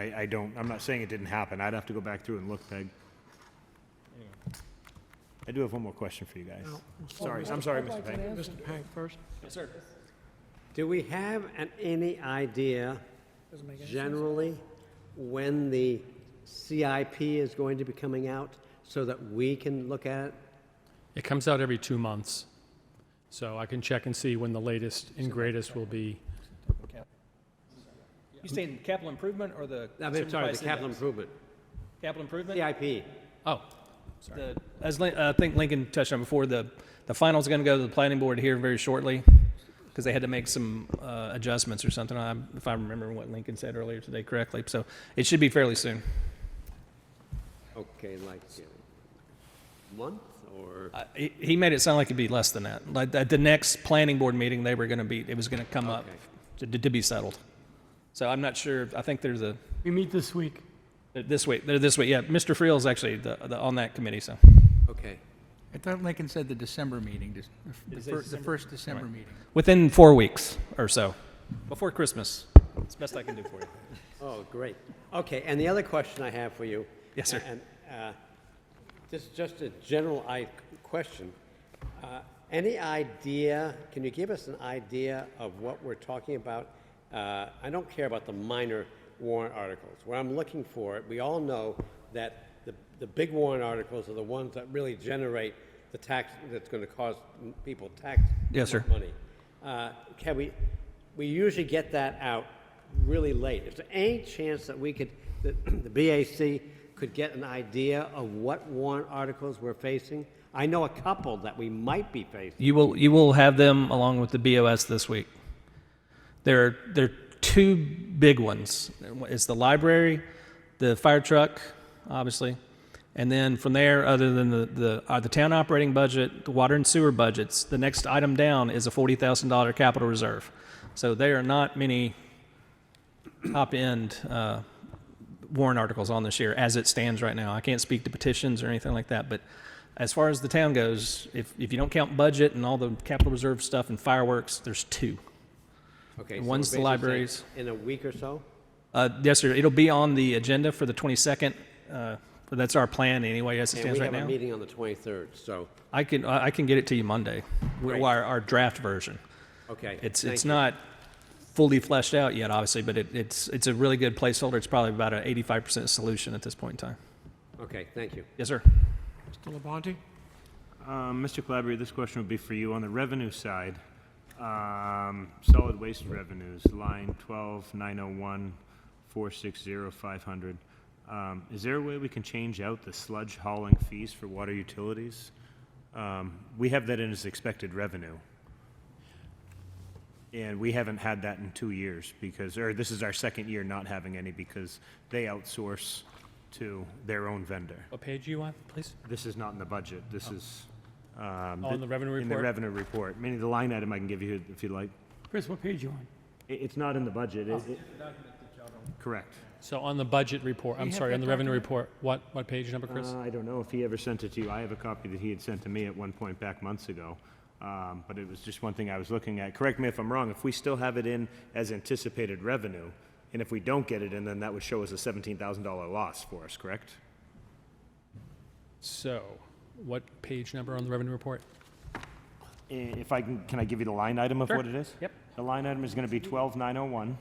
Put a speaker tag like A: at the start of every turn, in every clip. A: I, I don't, I'm not saying it didn't happen. I'd have to go back through and look, Peg. I do have one more question for you guys. Sorry, I'm sorry, Mr. Peg.
B: Mr. Hank first.
C: Do we have an- any idea generally when the CIP is going to be coming out so that we can look at it?
D: It comes out every two months, so I can check and see when the latest and greatest will be.
E: You saying capital improvement or the?
C: I mean, sorry, the
E: supervised
C: capital
E: index?
C: improvement,
E: Capital improvement?
C: CIP.
E: Oh. The- As Lin- uh, I think Lincoln touched on before, the, the final's going to go to the planning board here very shortly because they had to make some uh, adjustments or something, I'm- if I remember what Lincoln said earlier today correctly. So it should be fairly soon.
C: Okay, like you know, month or,
E: I- He he made it sound like it'd be less than that. Like at the next planning board meeting, they were going to be, it was going to come up
C: Okay.
E: to, to be settled. So I'm not sure, I think there's a,
B: We meet this week.
E: this way, they're this way, yeah. Mr. Friel's actually the, the, on that committee, so.
C: okay.
F: I thought Lincoln said the December meeting, just the fir- the first December meeting.
E: Within four weeks or so, before Christmas. It's best I can do for you.
C: Oh, great. Okay, and the other question I have for you.
E: Yes, sir.
C: And uh, this is just a general I question. Uh, Any idea, can you give us an idea of what we're talking about? Uh, I don't care about the minor warrant articles. What I'm looking for, we all know that the, the big warrant articles are the ones that really generate the tax, that's going to cause people tax
E: Yes, sir.
C: money. Uh, Can we, we usually get that out really late. Is there any chance that we could, that the BAC could get an idea of what warrant articles we're facing? I know a couple that we might be facing.
E: You will you will have them along with the BOS this week. There are there are two big ones. It's the library, the fire truck, obviously, and then from there, other than the the, uh, the town operating budget, the water and sewer budgets, the next item down is a forty thousand dollar capital reserve. So there are not many top end. Uh, warrant articles on this year as it stands right now. I can't speak to petitions or anything like that, but as far as the town goes, if, if you don't count budget and all the capital reserve stuff and fireworks, there's two.
C: Okay.
E: And
C: so
E: one's
C: we're
E: the
C: basically saying
E: libraries.
C: In a week or so?
E: Uh, yes, sir, it'll be on the agenda for the 22nd. Uh, but that's our plan anyway, as it
C: And
E: stands
C: we
E: right
C: have a
E: now.
C: meeting on the 23rd, so,
E: I can, I I can get it to you Monday,
C: Great.
E: w- our, our draft version.
C: okay.
E: It's,
C: thank
E: it's
C: you.
E: not fully fleshed out yet, obviously, but it, it's, it's a really good placeholder. It's probably about an 85% solution at this point in time.
C: Okay, thank you.
E: Yes, sir.
B: Mr. Labonte?
A: Um, Mr. Calabria, this question would be for you. On the revenue side, um, solid waste revenues, line oh 12, 901, 460, 500. Um, Is there a way we can change out the sludge hauling fees for water utilities? Um, We have that in as expected revenue. And we haven't had that in two years because, or this is our second year not having any because they outsource to their own vendor.
D: What page you want, please?
A: This is not in the budget, this is. um,
D: Oh, in the revenue
A: In the
D: report?
A: revenue report, meaning the line item I can give you if you'd like.
B: Chris, what page you on?
A: It, it's not in the budget, is it? Correct.
D: So on the budget report, I'm
B: have
D: sorry,
B: that
D: on the revenue
B: document?
D: report, what, what page number, Chris?
A: Uh, I don't know if he ever sent it to you, I have a copy that he had sent to me at one point back months ago. Um, but it was just one thing I was looking at, correct me if I'm wrong, if we still have it in as anticipated revenue, and if we don't get it in, then that would show us a seventeen thousand dollar loss for us, correct?
D: So, what page number on the revenue report?
A: I- If I can, can I give you the line item of
D: Sure.
A: what it is?
D: Yep.
A: The line item is going to be 12901,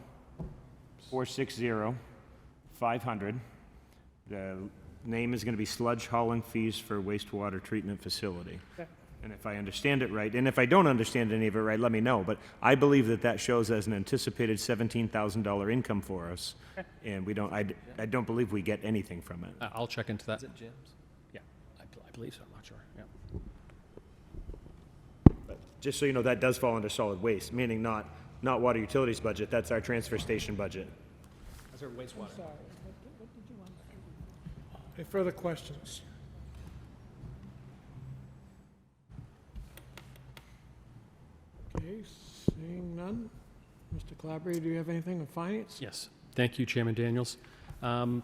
A: 460, 500. The name is going to be sludge hauling fees for wastewater treatment facility. And if I understand it right, and if I don't understand any of it right, let me know, but I believe that that shows as an anticipated $17,000 income for us, and we don't, I, d- I don't believe we get anything from it.
D: Uh, I'll check into that.
E: Jim's?
D: Yeah, I bel- I believe so, I'm not sure, yeah.
A: Just so you know, that does fall under solid waste, meaning not, not water utilities budget, that's our transfer station budget.
E: That's our wastewater.
B: Any further questions? Okay, seeing none. Mr. Calabria, do you have anything in finance?
D: Yes, thank you, Chairman Daniels. Um,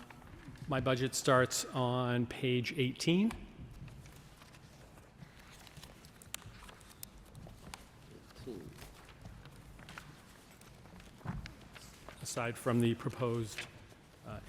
D: My budget starts on page 18. Aside from the proposed